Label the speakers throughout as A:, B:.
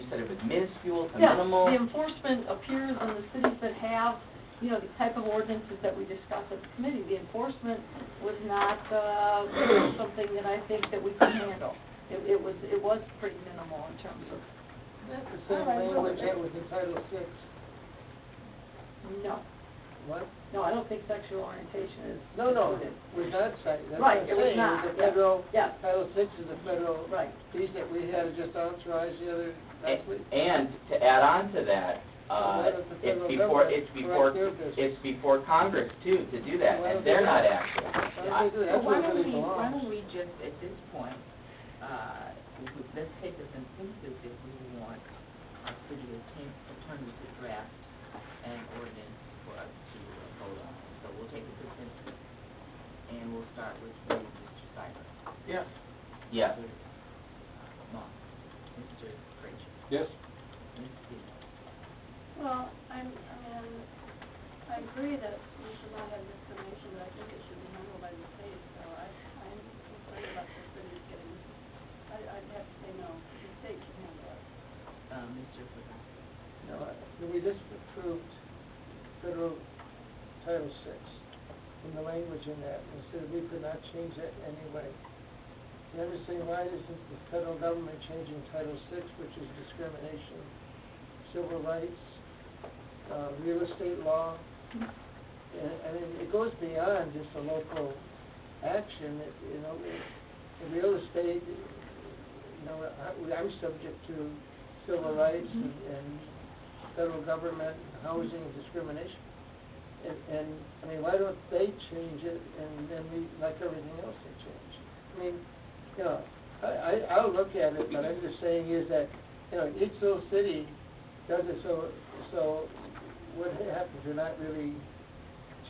A: instead of minuscule to
B: Yeah,
A: minimal?
B: the enforcement appears in the cities that have, you know, the type of ordinances that we discussed at the committee. The enforcement was not, uh, something that I think that we could handle. It, it was, it was pretty minimal in terms of,
C: That's the
B: All
C: same
B: right, well,
C: language that
B: it-
C: was in Title Six.
B: no,
C: What?
B: no, I don't think sexual orientation is.
C: No, no,
B: included.
C: was not cited, that's what
B: Right,
C: I'm
B: it was
C: saying,
B: not,
C: it's a
B: yeah.
C: federal,
B: Yeah,
C: Title Six is a federal
B: right.
C: piece that we had just authorized the other, last week.
A: A- And to add on to that,
C: Well,
A: uh,
C: that is the
A: it's
C: federal
A: before,
C: government,
A: it's before,
C: correct their business.
A: it's before Congress too, to do that,
C: Well,
A: and they're not
C: yeah.
A: active.
C: Why don't they do that?
D: Well,
C: That's
D: why
C: where it
D: don't we,
C: really
D: why
C: belongs.
D: don't we just, at this point, uh, if we- let's take this in pieces if we want our city attorney attorney to draft an ordinance for us to vote on. So we'll take it in pieces, and we'll start with you, Mr. Cyber.
E: Yes.
A: Uh, Yeah,
D: Mr. Moss, Mr. Frazier,
E: Yes.
D: Ms. Stevens.
F: Well, I'm, I mean, I agree that we should not have discrimination, but I think it should be handled by the state, so I, I'm concerned about the city getting, I, I'd have to say no, the state can handle it.
D: Uh, Mr. Frazier.
C: No, I- we just approved federal Title Six, and the language in that, and said we could not change that anyway. And I'm just saying, why isn't the federal government changing Title Six, which is discrimination, civil rights, uh, real estate law? And, I mean, it goes beyond just a local action, it, you know, it, the real estate, you know, I, I'm subject to civil rights and, and federal government housing discrimination. And, and, I mean, why don't they change it and then we, like everything else, they change? I mean, you know, I, I, I'll look at it, but I'm just saying is that, you know, each little city does it so, so what happens, you're not really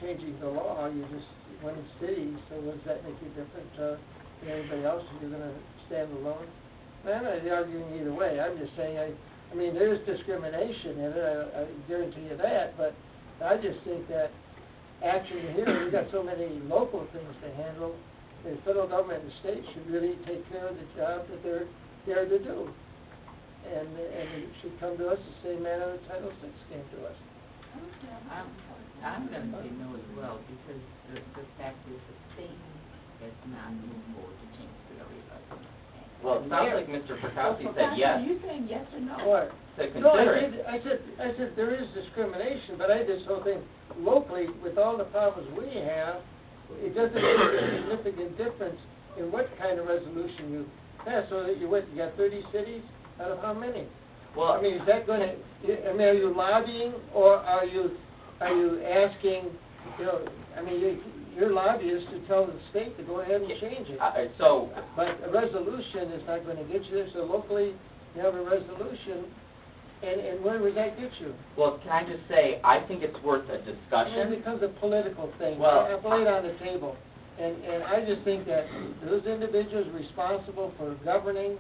C: changing the law, you're just one city, so what does that make you different, uh, than anybody else, if you're gonna stand alone? I'm not arguing either way, I'm just saying, I, I mean, there's discrimination in it, I, I guarantee you that, but I just think that action here, we've got so many local things to handle, the federal government and state should really take care of the job that they're there to do. And, and it should come to us the same manner that Title Six came to us.
D: I'm, I'm gonna say no as well, because the, the fact is the state has not moved forward to change the area of.
A: well, it sounds like Mr. Perkowski said
D: Are
A: yes
D: you saying yes or no?
C: Or-
A: to
C: No, I
A: consider it.
C: did, I said, I said, there is discrimination, but I just don't think locally, with all the problems we have, it doesn't make a significant difference in what kind of resolution you pass, so that you went, you got thirty cities, out of how many?
A: Well,
C: I mean, is that gonna, I mean, are you lobbying, or are you, are you asking, you know, I mean, you- you're lobbyists to tell the state to go ahead and change it.
A: uh, uh, so,
C: But a resolution is not gonna get you there, so locally, you have a resolution, and, and where would that get you?
A: well, can I just say, I think it's worth a
C: And it
A: discussion.
C: becomes a political
A: Uh,
C: thing.
A: Well-
C: I play it on the table. And, and I just think that those individuals responsible for governing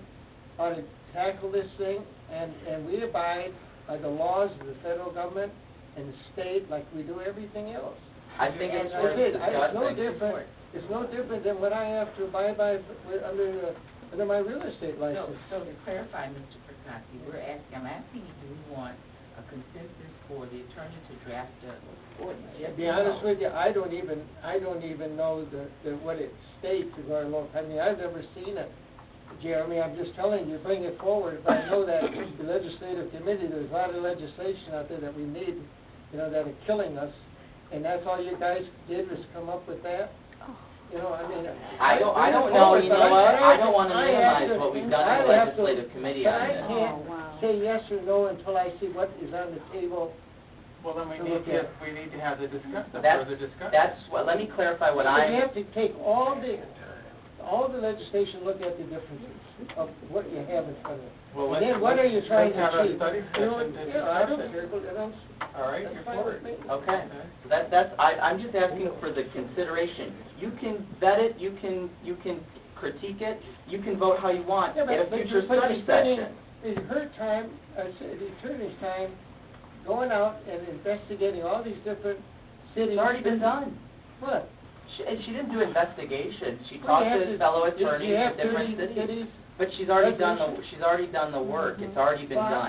C: ought to tackle this thing, and, and we abide by the laws of the federal government and the state like we do everything else.
A: I think it's
C: And I
A: worth
C: did, I, it's no
A: discussing.
C: different, it's no different than what I have to abide by with- under, uh, under my real estate
D: So,
C: license.
D: so to clarify, Mr. Perkowski, we're asking, I'm asking you, do we want a consensus for the attorney to draft a ordinance?
C: To be honest with you, I don't even, I don't even know the, the, what it states as our local, I mean, I've never seen it. Jeremy, I'm just telling you, bring it forward, but I know that the legislative committee, there's a lot of legislation out there that we need, you know, that are killing us, and that's all you guys did was come up with that? You know, I mean.
A: I don't, I don't know, you
C: bring it forward, but
A: know what, I don't wanna
C: I have
A: minimize
C: to-
A: what we've done in
C: I
A: the
C: have to-
A: legislative committee
C: But
A: on
C: I
A: this.
C: can't say yes or no until I see what is on the table.
E: Well, then
C: To
E: we need
C: look
E: to,
C: at.
E: we need to have the discuss, the
A: That's-
E: further discussion.
A: That's what, let me clarify what
C: But you
A: I'm,
C: have to take all the, all the legislation, look at the differences of what you have in front of you.
E: Well,
C: And
E: let's-
C: then what are you
E: let's
C: trying to
E: have a
C: achieve?
E: study
C: You know,
E: session to
C: yeah, I don't
E: discuss it.
C: care, but I don't-
E: All right,
C: that's
E: you're
C: fine
E: for
C: with me.
E: it.
A: okay. That, that's, I, I'm just asking for the consideration. You can vet it, you can, you can critique it, you can vote how you want
C: Yeah,
A: at
C: but-
A: a
C: but you-
A: future
C: but
A: study
C: you're spending-
A: session.
E: Oh.
C: It's her time, uh, s- the attorney's time, going out and investigating all these different
A: It's
C: cities.
A: already been done.
C: What?
A: She, and she didn't do investigations, she
C: Well,
A: talked
C: you have
A: to fellow
C: you- you
A: attorneys
C: have
A: at different
C: 30
A: cities. But she's already done the,
C: Resolution. Mm-hmm.
A: she's already done the work, it's already been
C: Fine.
A: done.